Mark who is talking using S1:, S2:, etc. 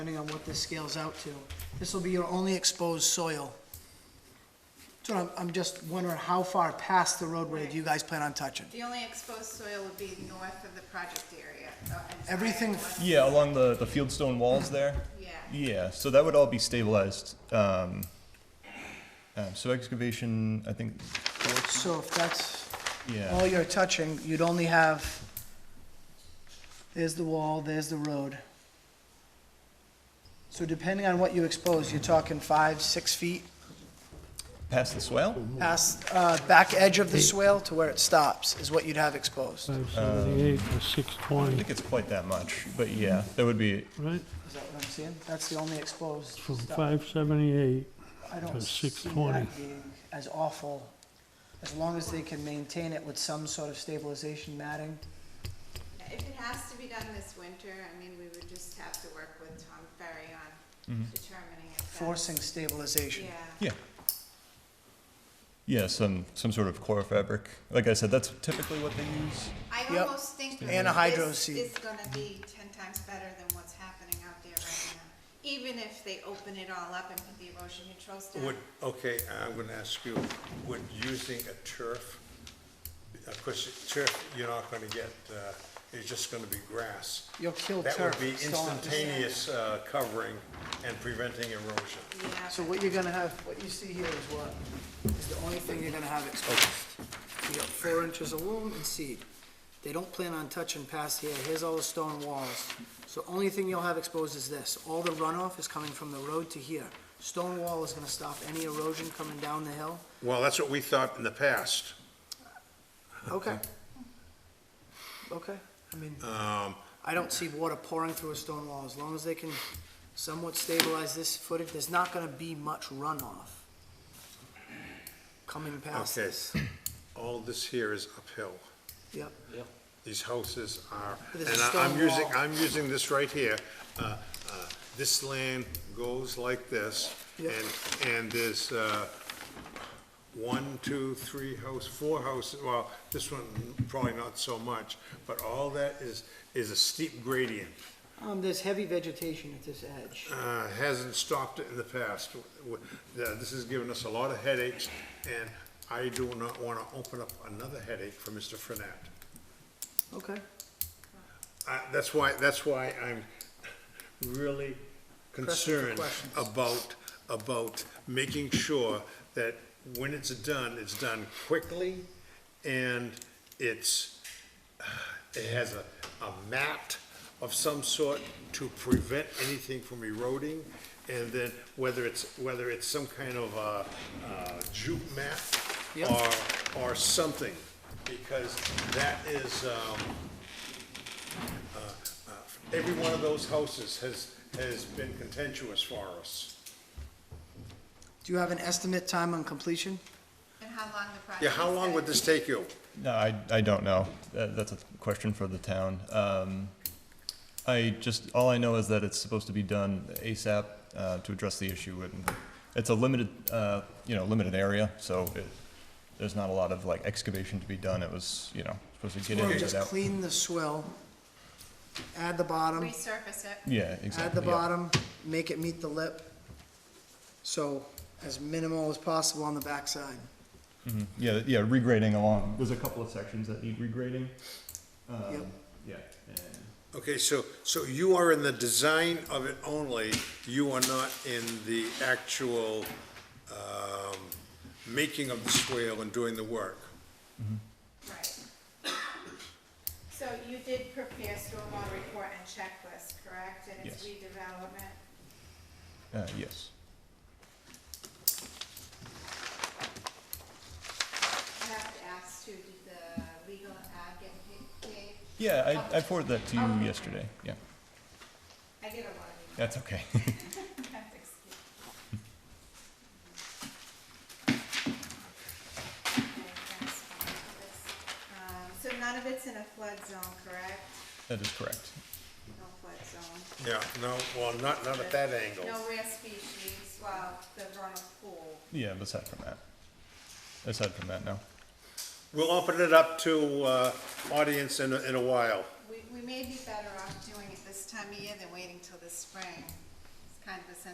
S1: depending on what this scales out to. This will be your only exposed soil. So I'm, I'm just wondering how far past the roadway do you guys plan on touching?
S2: The only exposed soil would be north of the project area. the entire
S1: Everything-
S2: north-
S3: Yeah, along the, the fieldstone walls there.
S2: Yeah,
S3: Yeah, so that would all be stabilized. Um, um, so excavation, I think,
S1: So if that's all
S3: yeah,
S1: you're touching, you'd only have, there's the wall, there's the road. So depending on what you expose, you're talking five, six feet
S3: past the swale?
S1: past, uh, back edge of the swale to where it stops is what you'd have exposed. Is
S4: 578 to
S3: I
S4: 620,
S3: think it's quite that much, but yeah, that would be,
S4: right?
S1: that what I'm seeing? That's the only exposed
S4: From
S1: stuff.
S4: 578,
S1: I don't
S4: to
S1: see
S4: 620.
S1: that being as awful, as long as they can maintain it with some sort of stabilization matting.
S2: if it has to be done this winter, I mean, we would just have to work with Tom Ferry on determining if that's.
S1: forcing stabilization.
S2: Yeah,
S3: yeah. Yeah, some, some sort of core fabric. Like I said, that's typically what they use.
S2: I
S1: Yep.
S2: almost think that
S1: Anhydrous
S2: this
S1: seed.
S2: is gonna be ten times better than what's happening out there right now. Even if they open it all up and put the erosion controls down,
S5: Would, okay, I'm gonna ask you, would using a turf, of course, turf, you're not gonna get, uh, it's just gonna be grass.
S1: You'll kill
S5: That would
S1: turf,
S5: be
S1: it's all-
S5: instantaneous uh, covering and preventing erosion.
S2: yeah.
S1: So what you're gonna have, what you see here is what, is the only thing you're gonna have exposed. You got four inches of loam and seed. They don't plan on touching past here, here's all the stone walls. So only thing you'll have exposed is this, all the runoff is coming from the road to here. Stone wall is gonna stop any erosion coming down the hill.
S5: Well, that's what we thought in the past.
S1: Okay. Okay, I mean, I don't see water pouring through a stone wall, as long as they can somewhat stabilize this footage, there's not gonna be much runoff coming past
S5: Okay,
S1: this.
S5: all this here is uphill.
S1: Yep,
S5: These houses are,
S1: But
S5: and
S1: there's a
S5: I- I'm
S1: stone
S5: using,
S1: wall.
S5: I'm using this right here. Uh, uh, This land goes like this,
S1: Yeah.
S5: and, and there's uh, one, two, three house, four houses, well, this one probably not so much, but all that is, is a steep gradient.
S1: um, there's heavy vegetation at this edge.
S5: Uh, Hasn't stopped it in the past. W- uh, This has given us a lot of headaches, and I do not want to open up another headache for Mr. Frenette.
S1: Okay,
S5: I- That's why, that's why I'm really concerned
S1: questions.
S5: about, about making sure that when it's done, it's done quickly and it's, it has a, a mat of some sort to prevent anything from eroding. And then whether it's, whether it's some kind of a, uh jute mat
S1: Yep.
S5: or, or something, because that is, um, Every one of those houses has, has been contentious for us.
S1: do you have an estimate time on completion?
S2: And how long the project
S5: Yeah, how
S2: is
S5: long
S2: gonna
S5: would this take you?
S3: No, I, I don't know. That, that's a question for the town. Um, I just, all I know is that it's supposed to be done ASAP, uh, to address the issue. And It's a limited, uh, you know, limited area, so it, there's not a lot of like excavation to be done. It was, you know, supposed to get in
S1: Or
S3: and
S1: just
S3: get out.
S1: clean the swell, add the bottom.
S2: Resurface it.
S3: Yeah, exactly.
S1: At the
S3: yeah.
S1: bottom, make it meet the lip, so as minimal as possible on the backside.
S3: Yeah, yeah, regrading along. There's a couple of sections that need regrading.
S1: Yep.
S3: Yeah.
S5: Okay, so, so you are in the design of it only, you are not in the actual, um, making of the swale and doing the work.
S2: Right. So you did prepare stormwater report and checklist, correct? And it's
S3: Yes.
S2: redevelopment?
S3: Uh, yes.
S2: I have to ask too, did the legal ad get pa- paid?
S3: Yeah, I, I forwarded that to you yesterday. Yeah,
S2: I get a lot of
S3: that's okay.
S2: these. That's excuse. Okay, that's fine for this. Um, So none of it's in a flood zone, correct?
S3: that is correct.
S2: No flood zone.
S5: Yeah, no, well, not, not at that angle.
S2: No rare species, well, the vernal pool.
S3: Yeah, but aside from that. Aside from that, no.
S5: We'll open it up to, uh, audience in, a- in a while.
S2: We, we may be better off doing it this time of year than waiting till the spring.